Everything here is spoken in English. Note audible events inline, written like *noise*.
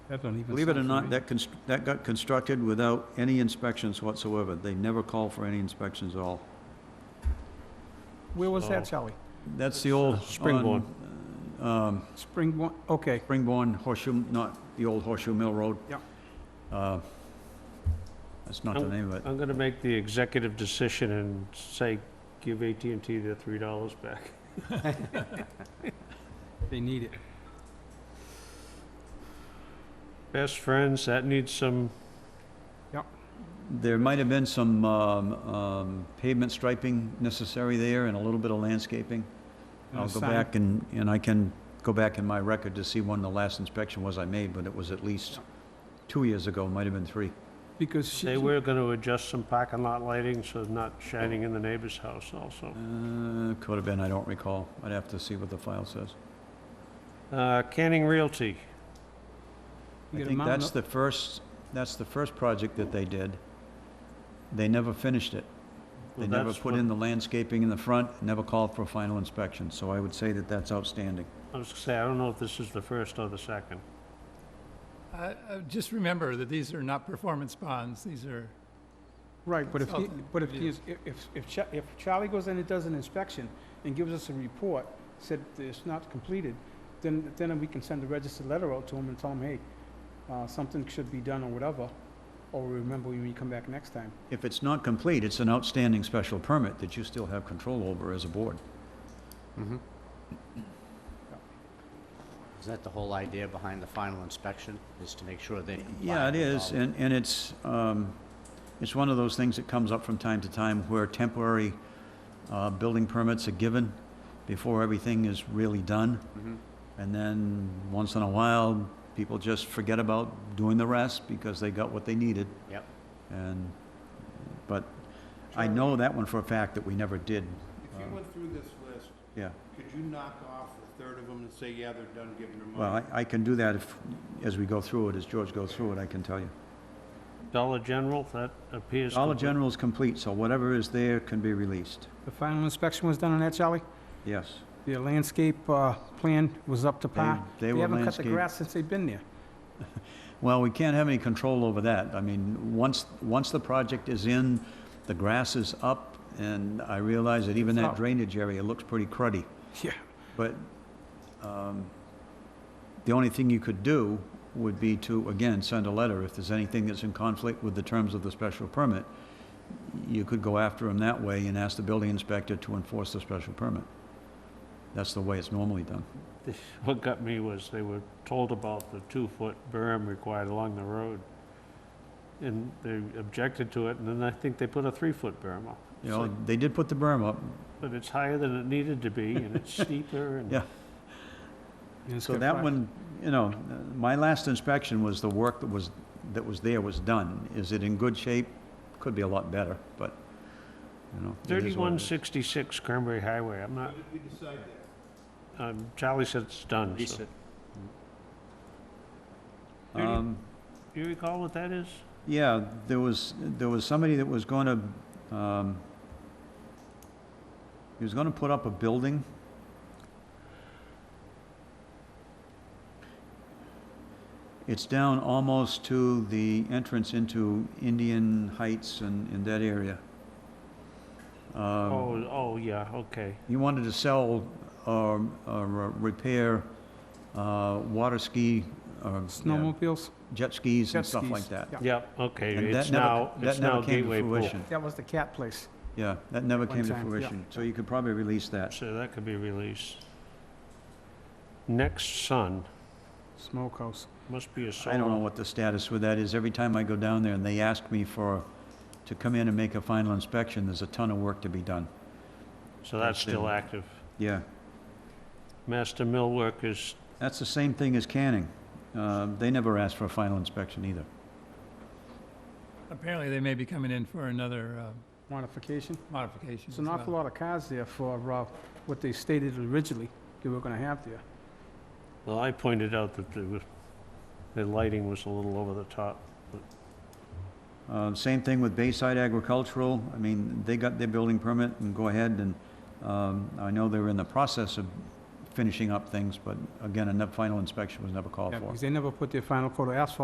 That don't even Believe it or sound not, familiar. that, const- that got constructed without any inspections whatsoever. They never call for any inspections at all. Where was Oh. that, Sally? That's the old. Springborn. on, um, Springborn, okay, Springborn Horseshoe, not the old Horseshoe Mill Road. Yeah. Uh, That's not the Oh. name of it. I'm gonna make the executive decision and say, give at and T their three dollars back. they need it. Best friends, that needs some, There might have been some um, um, pavement striping necessary there and a little bit of landscaping. And a I'll go sign. back and, and I can go back in my record to see when the last inspection was I made, but it was at least two years ago, might have been three. Because she, they were gonna adjust some parking lot lighting, so it's not shining in the neighbor's house also. Uh, Could have been, I don't recall. I'd have to see what the file says. Uh, Canning Realty, you I got a think mountain that's up- the first, that's the first project that they did. They never finished it. They well, never that's put what, in the landscaping in the front, never called for final inspection, so I would say that that's outstanding. I was gonna say, I don't know if this is the first or the second. I- I Just remember that these are not performance bonds, these are, Right, but if, he- Consultant but if, he review. is- if, if- if, Cha- if Charlie goes in and does an inspection and gives us a report, said that it's not completed, then, then we can send a registered letter out to him and tell him, hey, uh, something should be done or whatever, or remember when you come back next time. If it's not complete, it's an outstanding special permit that you still have control over as a board. Mm-hmm. Is that the whole idea behind the final inspection, is to make sure they comply? Yeah, it with is, all- and, and it's, um, it's one of those things that comes up from time to time where temporary, uh, building permits are given before everything is really done. Mhm. And then, once in a while, people just forget about doing the rest because they got what they needed. Yep. And, but I know that one for a fact that we never did, If you went through this list, yeah. could you knock off a third of them and say, yeah, they're done giving their money? Well, I, I can do that if, as we go through it, as George goes through it, I can tell you. Dollar General, that appears. Dollar complete. General is complete, so whatever is there can be released, The final inspection was done on that, Charlie? yes. The landscape, uh, plan was up to par? They- They were haven't cut the landscaped. grass since they've been there. Well, we can't have any control over that. I mean, once, once the project is in, the grass is up, and I realize that even that Up. drainage area looks pretty cruddy. Yeah. But um, the only thing you could do would be to, again, send a letter. If there's anything that's in conflict with the terms of the special permit, you could go after them that way and ask the building inspector to enforce the special permit. That's the way it's normally done. *laughs* What got me was they were told about the two-foot berm required along the road. And they objected to it, and then I think they put a three-foot berm up. You know, they did put the berm up, But it's higher than it needed to be, *laughs* and it's steeper, and Yeah. And it's So got that five- one, you know, uh, my last inspection was the work that was, that was there was done. Is it in good shape? Could be a lot better, but, you know. it is what it thirty-one is. sixty-six Cranberry Highway, I'm How not, did we decide that? um, Charlie said it's done, Release so. it. thirty- Um, Do you recall what that is? yeah, there was, there was somebody that was gonna, um, he was gonna put up a building. It's down almost to the entrance into Indian Heights and, in that area. Um, Oh, oh, yeah, okay. He wanted to sell or, or repair uh, water ski, or yeah, Snowmobiles? jet skis Jet and stuff like skis, that. yeah. Yep, okay, And it's that never- now, that it's never now came to Gateway Pool. fruition. That was the cat place. Yeah, that never One came to time, yeah. fruition. So you could probably release that. So that could be released. Next Sun, Smokehouse. must be a solar. I don't know what the status with that is. Every time I go down there and they ask me for, to come in and make a final inspection, there's a ton of work to be done. So that's That's still in- active. Yeah, Master mill workers, that's the same thing as Canning. Uh, They never asked for a final inspection either. apparently they may be coming in for another uh, Modification? modification There's as an awful well. lot of cars there for uh, what they stated originally they were gonna have there. well, I pointed out that the, the lighting was a little over the top. Uh, Same thing with Bayside Agricultural. I mean, they got their building permit and go ahead and, um, I know they're in the process of finishing up things, but again, a ne- final inspection was never called Yeah, for. Because they never put their final coat of asphalt